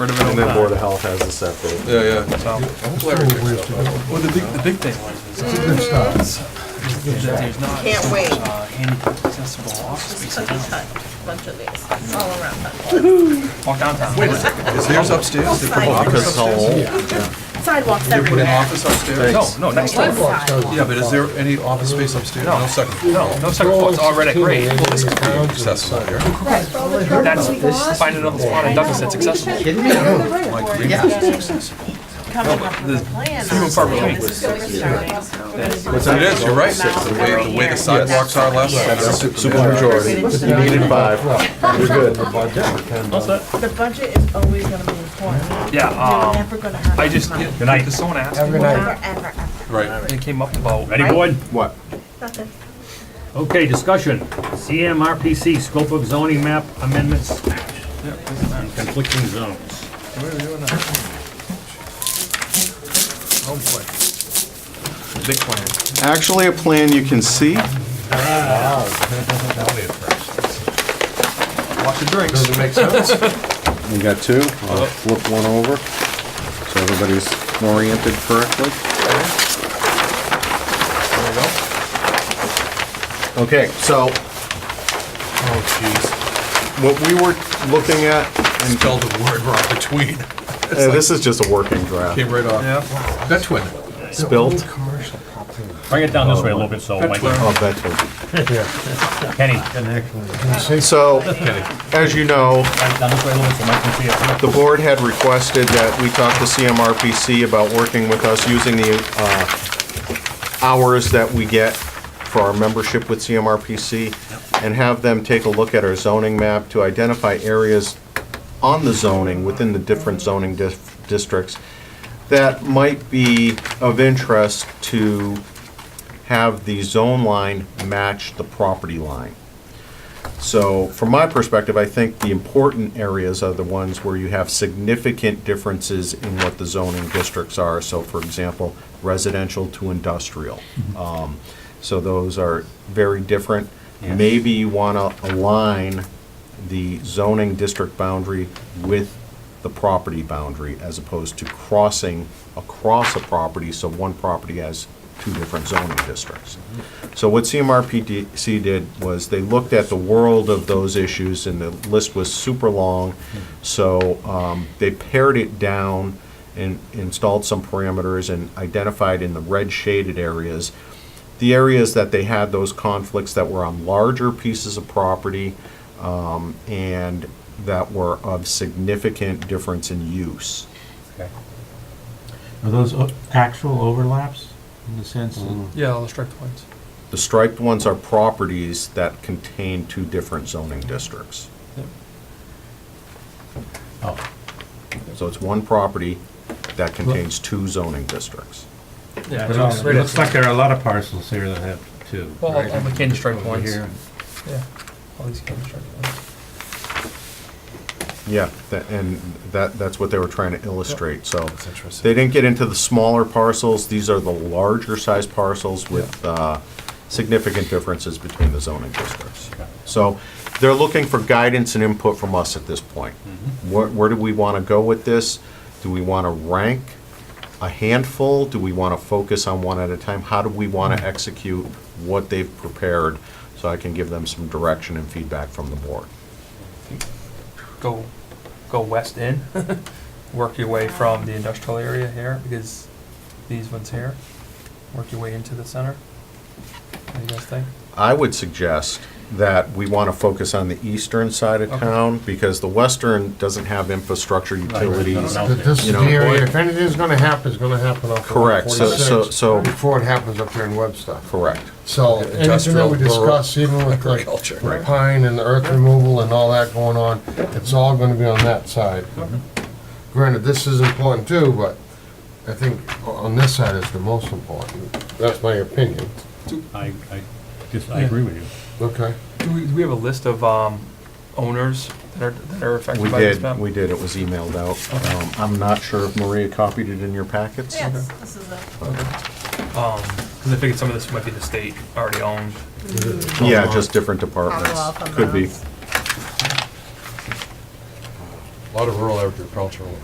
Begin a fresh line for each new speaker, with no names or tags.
Board of
And then
Health.
Board of Health has a separate.
Yeah, yeah.
Well, the big, the big thing was, is that there's not.
Can't
so much,
wait.
uh, Handicap accessible office
Just
space
cookie
around.
cut, bunch of these, It's all around that.
Walk downtown. Wait a second.
Is theirs upstairs? They put an office upstairs?
Sidewalks
They put an
everywhere.
office upstairs?
No, no, next door.
Yeah, but is there any office space upstairs? No second floor.
No, no second floor, it's already great. Well, this is great.
Accessible here.
That's, this, find another spot in Douglas that's accessible.
Kidding me?
My goodness.
Coming up with a plan. Few
and far between.
It is, you're right. The way, the way the sidewalks are last night.
That's a super majority. You needed five. You're good.
The budget is always gonna be important.
Yeah,
You're
um,
never gonna have.
I
enough
just,
money.
good night, someone asked, me,
Never, ever, ever.
Right.
and it came up about.
Ready, board?
What?
Nothing.
Okay, discussion. CMRPC, scope of zoning map amendments, conflicting zones.
Big plan.
Actually, a plan you can see.
Watch the drinks.
We got two. I'll flip one over, so everybody's oriented correctly. Okay, so. Oh, jeez. What we were looking at,
Spelled the word wrong between.
eh, this is just a working draft.
Came right off.
Yeah.
That twin.
Spilt.
Bring it down this way a little bit so Mike,
Oh, that's what-
Kenny, bring
So, as you know,
it down this way a little bit so Mike can see it.
The board had requested that we talk to CMRPC about working with us using the uh, hours that we get for our membership with CMRPC and have them take a look at our zoning map to identify areas on the zoning, within the different zoning dis- districts, that might be of interest to have the zone line match the property line. So from my perspective, I think the important areas are the ones where you have significant differences in what the zoning districts are. So for example, residential to industrial. Um, So those are very different.
Yes.
Maybe you want to align the zoning district boundary with the property boundary as opposed to crossing across a property, so one property has two different zoning districts. So what CMRPC did was they looked at the world of those issues, and the list was super long. So um, they pared it down and installed some parameters and identified in the red shaded areas, the areas that they had those conflicts that were on larger pieces of property um, and that were of significant difference in use.
Okay.
Are those o- actual overlaps in the sense that
Yeah, I'll strike the points.
The striped ones are properties that contain two different zoning districts. So it's one property that contains two zoning districts.
Yeah.
It looks- it looks like there are a lot of parcels here that have two.
Well,
right?
all the candy stripe
Over
ones.
here.
Yeah. All these candy stripe ones.
Yeah, tha- and that, that's what they were trying to illustrate, so.
That's interesting.
They didn't get into the smaller parcels, these are the larger size parcels with uh, significant differences between the zoning districts. So they're looking for guidance and input from us at this point.
Mm-hmm.
Where, where do we want to go with this? Do we want to rank a handful? Do we want to focus on one at a time? How do we want
Mm-hmm.
to execute what they've prepared? So I can give them some direction and feedback from the board.
Go, go west in, work your way from the industrial area here, because these ones here, work your way into the center. What do you guys think?
I would suggest that we want to focus on the eastern side of
Okay.
town, because the western doesn't have infrastructure, utilities.
No, no,
That This is
You
the
know,
area,
boy-
if anything's gonna happen, it's gonna happen off of
Correct, so, so,
46
so,
before it happens up here in Webster.
correct.
So anything that
Industrial,
we discuss, even with like
agriculture.
the pine and the earth removal and all that going on, it's all gonna be on that side. Granted, this is important too, but I think o- on this side is the most important. That's my opinion.
I, I, just, I agree with you.
Okay.
Do we, do we have a list of, um, owners that are, that are affected
We
by this
did,
map?
we did, it was emailed out. Um, I'm not sure if Maria copied it in your packets.
Yes, this is a,
Um, cause I figured some of this might be the state already owned.
Yeah, just different departments,
Follow up on
could be.
those.
lot of rural agricultural